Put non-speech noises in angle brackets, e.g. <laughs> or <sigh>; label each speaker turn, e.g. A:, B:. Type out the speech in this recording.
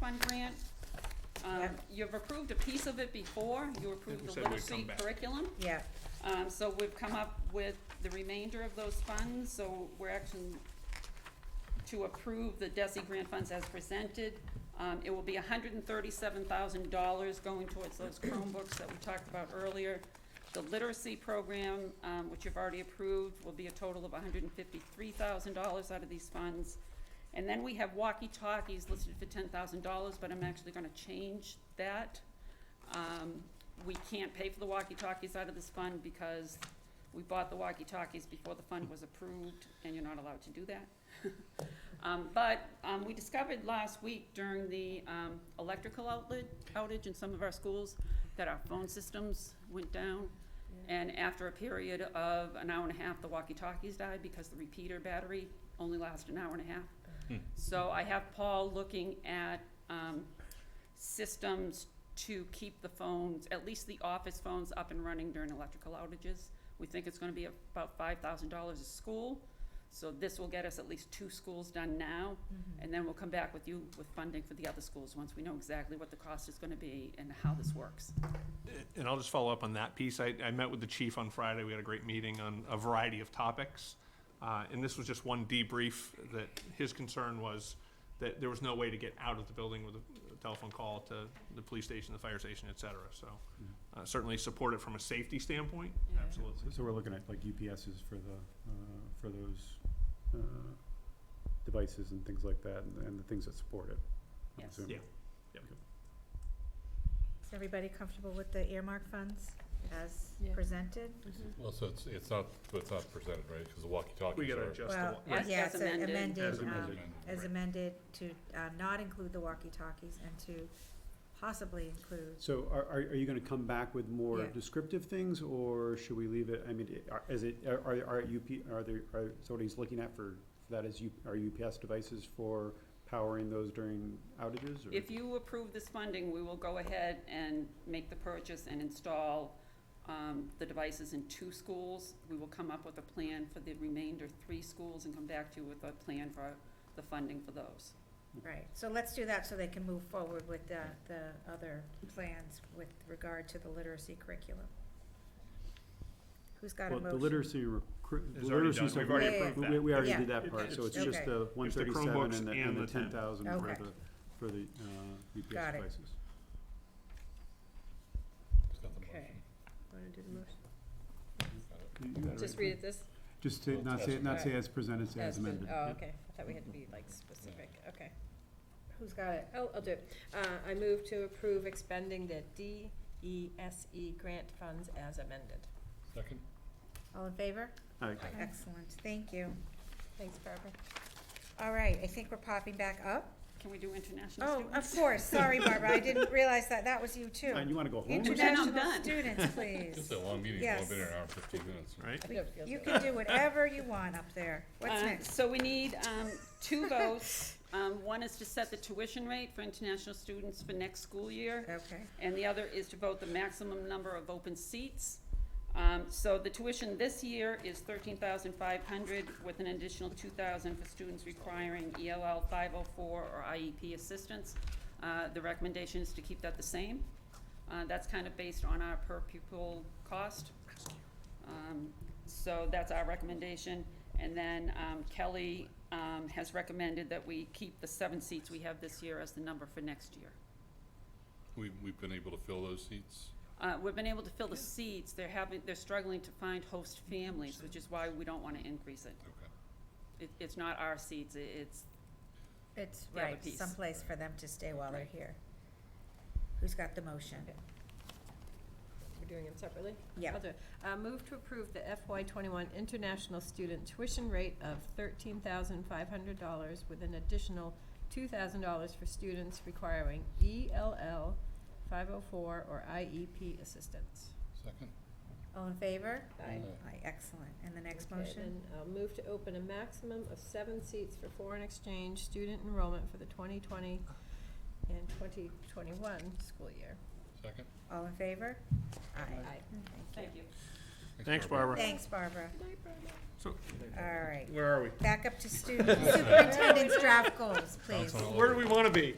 A: Fund grant. Um, you've approved a piece of it before, you approved
B: we
A: the
B: said we'd
A: literacy
B: come back.
A: curriculum.
C: Yeah,
A: Um, so we've come up with the remainder of those funds, so we're actually to approve the DESI grant funds as presented. Um, it will be hundred and thirty-seven thousand dollars going towards those Chromebooks that we talked about earlier. The literacy program, um, which you've already approved, will be a total of hundred and fifty-three thousand dollars out of these funds. And then we have walkie-talkies listed for ten thousand dollars, but I'm actually gonna change that. Um, we can't pay for the walkie-talkies out of this fund because we bought the walkie-talkies before the fund was approved, and you're not allowed to do that. <laughs> Um, but, um, we discovered last week during the, um, electrical outlet outage in some of our schools that our phone systems went down. And after a period of an hour and a half, the walkie-talkies died because the repeater battery only lasted an hour and a half. So I have Paul looking at, um, systems to keep the phones, at least the office phones, up and running during electrical outages. We think it's gonna be about five thousand dollars a school, so this will get us at least two schools done now. And then we'll come back with you with funding for the other schools, once we know exactly what the cost is gonna be and how this works.
B: And I'll just follow up on that piece. I, I met with the chief on Friday. We had a great meeting on a variety of topics. Uh, and this was just one debrief that his concern was that there was no way to get out of the building with a telephone call to the police station, the fire station, et cetera. So uh, certainly support it from a safety standpoint,
A: Yeah.
B: absolutely.
D: So we're looking at like UPSs for the, uh, for those, uh, devices and things like that, and, and the things that support it. I'm
A: Yes.
D: assuming.
B: Yeah.
C: is everybody comfortable with the earmark funds as
A: Yeah.
C: presented?
E: Well, so it's, it's not, but it's not presented, right, because the walkie-talkies are.
B: We gotta adjust the,
C: Well,
B: wa- right,
A: As-
C: yeah,
A: as
C: it's a-
A: amended.
C: amended,
B: As
C: um,
B: amended.
C: as
B: Right.
C: amended to, uh, not include the walkie-talkies and to possibly include,
D: So are, are, are you gonna come back with more
C: Yeah.
D: descriptive things, or should we leave it, I mean, i- are, is it, are, are- are UP, are there, are, so what he's looking at for, for that is U, are UPS devices for powering those during outages, or?
A: If you approve this funding, we will go ahead and make the purchase and install um, the devices in two schools. We will come up with a plan for the remainder three schools and come back to you with a plan for the funding for those.
C: right, so let's do that so they can move forward with the, the other plans with regard to the literacy curriculum. Who's got a
D: Well,
C: motion?
D: the literacy, recru-
B: It's already
D: literacy.
B: done.
D: stuff
B: We've already
D: we-
C: Yeah, yeah,
B: approved
D: we-
B: that.
D: We, we already
C: Yeah.
D: did that part,
B: It's-
D: so it's just
C: okay.
D: the one
B: It's the
D: thirty-seven
B: Chromebooks
D: and the,
B: and
D: and the
B: the 10.
D: ten thousand for
C: Okay.
D: the, for the, uh, UPS
C: Got it.
D: devices.
E: It's got the motion.
C: Okay. Wanna do the motion?
E: Got it.
D: You- you got it
A: Just
D: right,
A: read
D: Pam?
A: it this,
D: Just to, not say, not say as presented, say
F: As
D: as
F: been-
D: amended.
F: Oh,
D: Yep.
F: okay, I thought we had to be like specific, okay. Who's got it? Oh, I'll do it. Uh, I move to approve expending the DESE E grant funds as amended.
E: Second?
C: All in favor?
D: Alright.
C: Excellent, thank you.
F: Thanks, Barbara.
C: All right, I think we're popping back up.
A: can we do international
C: Oh,
A: students?
C: of course, sorry Barbara, I didn't realize that, that was you too.
D: And you wanna go home? or-
A: Internet- then I'm
F: Oh,
C: International
A: done.
C: students,
E: It's
F: <laughs>
C: please.
E: a long meeting, it's
C: Yes.
E: only been an hour and fifteen minutes.
C: You can do whatever you want up there. What's
A: Uh,
C: next?
A: So we need um, two votes. Um, One is to set the tuition rate for international students for next school year.
C: Okay,
A: and the other is to vote the maximum number of open seats. Um, so the tuition this year is thirteen thousand five hundred with an additional two thousand for students requiring ELL five oh four or IEP assistance. Uh, the recommendation is to keep that the same. Uh, that's kind of based on our per pupil cost. Um, so that's our recommendation. And then, um, Kelly, um, has recommended that we keep the seven seats we have this year as the number for next year.
E: We, we've been able to fill those seats.
A: Uh, we've been able to fill the seats, they're having, they're struggling to find host families, which is why we don't wanna increase it.
E: Okay.
A: It, it's not our seats, it, it's,
C: it's
A: The other
C: right,
A: piece.
C: someplace for them to stay while they're
A: Right.
C: here. Who's got the motion?
F: We're doing them separately?
C: Yeah.
F: I'll do it. Uh, move to approve the FY twenty-one international student tuition rate of thirteen thousand five hundred dollars with an additional two thousand dollars for students requiring ELL five oh four or IEP assistance.
E: Second?
C: All in favor?
F: Aye.
C: Aye, excellent. And the next
F: Okay,
C: motion?
F: then, uh, move to open a maximum of seven seats for foreign exchange student enrollment for the twenty twenty and twenty twenty-one school year.
E: Second?
C: All in favor? Aye. Mm,
A: thank you.
B: Thanks, Barbara.
C: Thanks, Barbara.
B: So
C: All right,
B: where are we?
C: back up to students, superintendent's draft goals, please.
E: Sounds all
B: Where do
E: over.
B: we wanna be?